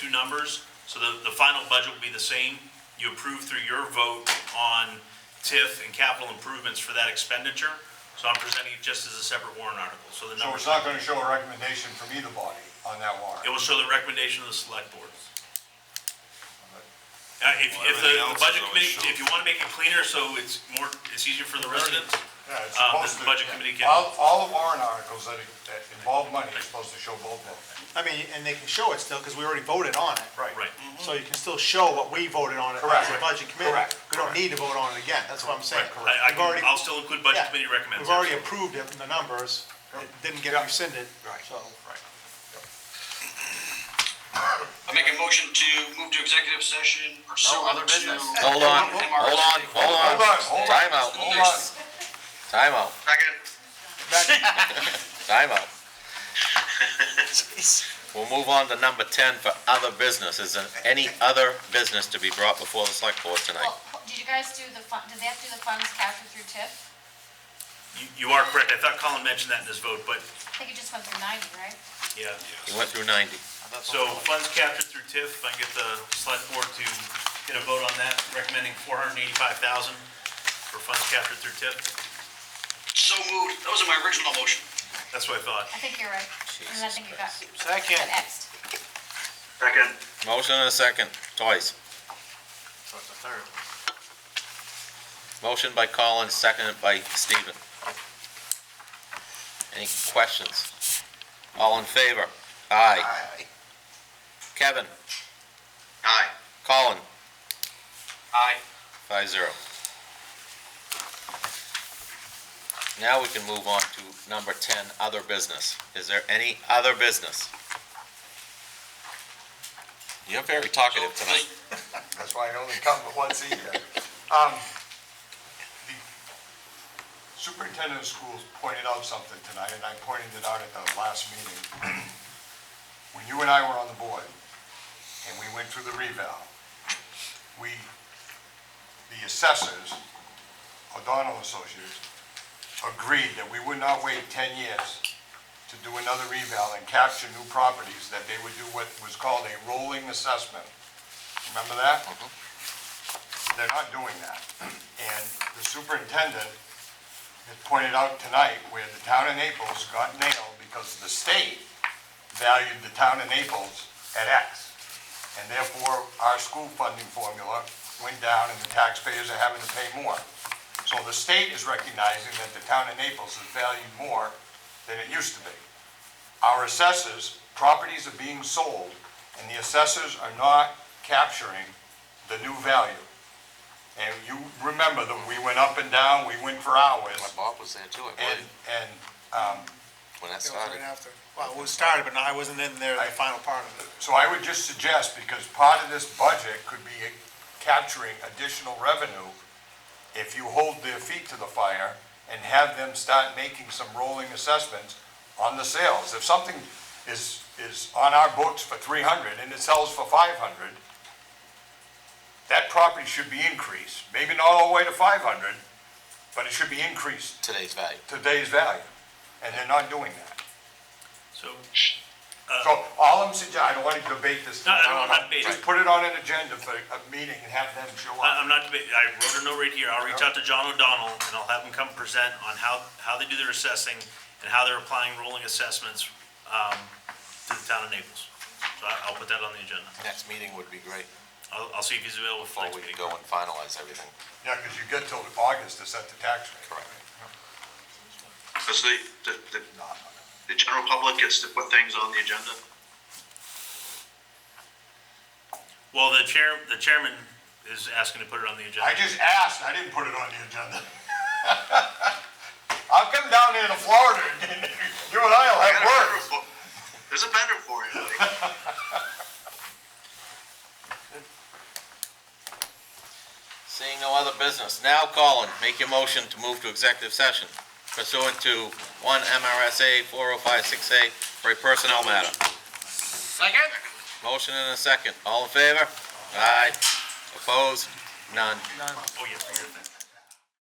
two numbers, so the, the final budget will be the same. You approve through your vote on TIF and capital improvements for that expenditure. So I'm presenting it just as a separate warrant article, so the So numbers, it's not gonna show a recommendation from either body on that it warrant? will show the recommendation of the select board. Uh, if, if the, Well, everything else the is budget always committee, shown. if you wanna make it cleaner, so it's more, it's easier for the residents, Yeah, it's um, supposed then the to- budget committee can. All, all the warrant articles that, that involve money are supposed to show both of them. I mean, and they can show it still, because we already voted on it. Right. So you can still show what we voted on it as Correct. a budget committee. Correct. We don't need to vote on it again, that's what I'm saying. I, I We've already- can, I'll still include budget yeah, committee recommends. We've already absolutely. approved it in the numbers, it didn't get rescinded, so. I make a motion to move to executive session pursuant to. Hold on, hold on, hold on. Hold on, hold on. Time out, Hold on. time out, Second. time out. We'll move on to number ten for other business. Is there any other business to be brought before the select board tonight? Well, did you guys do the fun, did they have to do the funds captured through TIF? You, you are correct, I thought Colin mentioned that in his vote, but, I think it just went through ninety, right? yeah. He went through ninety. So funds captured through TIF, if I can get the select board to get a vote on that, recommending four hundred and eighty-five thousand for funds captured through TIF. So moved. That was in my original motion. That's what I thought. I think you're right. And then I Jesus think it got, Second. got Xed. Second. Motion and a second, twice. Motion by Collins, seconded by Stephen. Any questions? All in favor? Aye. Kevin? Aye. Colin? Aye. Five zero. Now we can move on to number ten, other business. Is there any other business? You're very talkative tonight. That's why I only come once a year. Um, the Superintendent of schools pointed out something tonight, and I pointed it out at the last meeting. When you and I were on the board, and we went through the revow, we, the assessors, O'Donnell Associates, agreed that we would not wait 10 years to do another revow and capture new properties, that they would do what was called a rolling assessment. Remember that? They're not doing that. And the superintendent had pointed out tonight where the town of Naples got nailed because the state valued the town of Naples at X. And therefore, our school funding formula went down and the taxpayers are having to pay more. So the state is recognizing that the town of Naples is valued more than it used to be. Our assessors, properties are being sold, and the assessors are not capturing the new value. And you remember that we went up and down, we went for hours, Bob was there too, I and, and, um, when that It was right after. Well, it was started, but I wasn't in there, the final part of it. So I would just suggest, because part of this budget could be capturing additional revenue if you hold their feet to the fire and have them start making some rolling assessments on the sales. If something is, is on our books for three hundred and it sells for five hundred, that property should be increased, maybe not all the way to five hundred, but it should be increased Today's value. today's value, and they're not doing that. So, So all I'm suggesting, I don't want to debate this. No, I don't wanna debate it. Uh-uh. Just put it on an agenda for a meeting and have them show I- up. I'm not, deba- I wrote a note right here, I'll reach out to John O'Donnell, and I'll have him come present on how, how they do their assessing, and how they're applying rolling assessments, um, to the town of Naples. So I, I'll put that on the agenda. Next meeting would be great, I'll, I'll see if he's available for before next we meeting. go and finalize everything. Yeah, because you get till August to set the tax rate. Correct. So the, the, the, the general public gets to put things on the agenda? Well, the chair, the chairman is asking to put it on the I agenda. just asked, I didn't put it on the agenda. I'll come down here to Florida, and you and I will have words. There's a vendor for you, buddy. Seeing no other business, now Colin, make your motion to move to executive session pursuant to one MRSA four oh five six A for a personnel matter. Second. Motion and a second, all in favor? Aye. Opposed? None. Oh, yeah, for your thing.